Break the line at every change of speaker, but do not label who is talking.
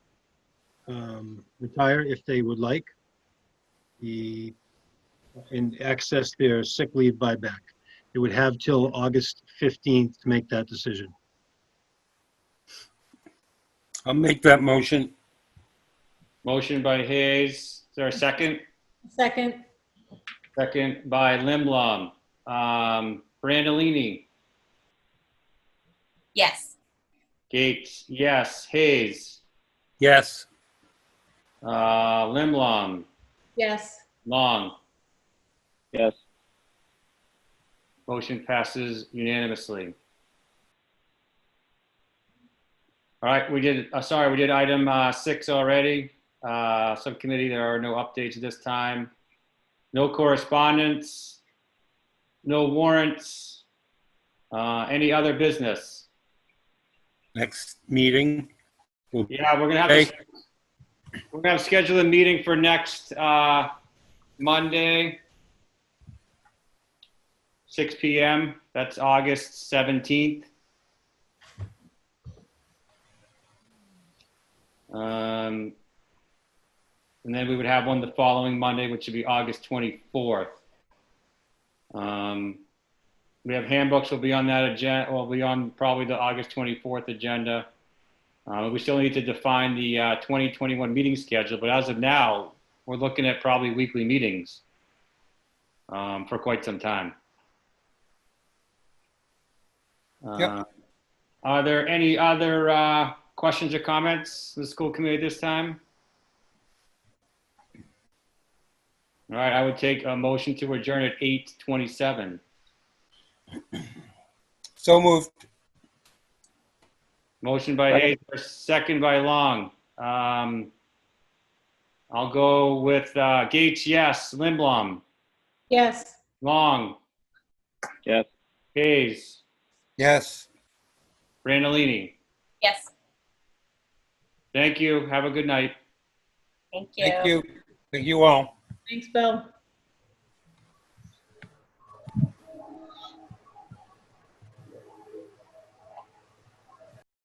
um, retire if they would like. The, and access their sick leave buyback. They would have till August 15th to make that decision.
I'll make that motion.
Motion by Hayes. Is there a second?
Second,
Second by Limblom. Um, Brandolini,
Yes.
Gates, yes. Hayes,
Yes.
uh, Limblom,
yes.
Long.
Yes.
Motion passes unanimously. All right, we did, uh, sorry, we did item uh, six already. Uh, Subcommittee, there are no updates this time. No correspondence, no warrants, Uh, any other business?
Next meeting. will-
Yeah, we're gonna have to, we're gonna have to schedule a meeting for next, uh, Monday, six PM. That's August seventeenth. Um, and then we would have one the following Monday, which would be August twenty-fourth. Um, we have handbooks will be on that agenda, will be on probably the August twenty-fourth agenda. Uh, we still need to define the uh, 2021 meeting schedule, but as of now, we're looking at probably weekly meetings um, for quite some time. Uh,
Yep.
Are there any other uh, questions or comments from the school committee this time? All right, I would take a motion to adjourn at 8:27.
So moved.
Motion by Hayes, second by Long. Um, I'll go with uh, Gates, yes. Lindblom,
Yes.
Long,
Yes.
Hayes,
Yes.
Randallini.
Yes.
Thank you. Have a good night.
Thank you.
Thank you. Thank you all.
Thanks, Bill.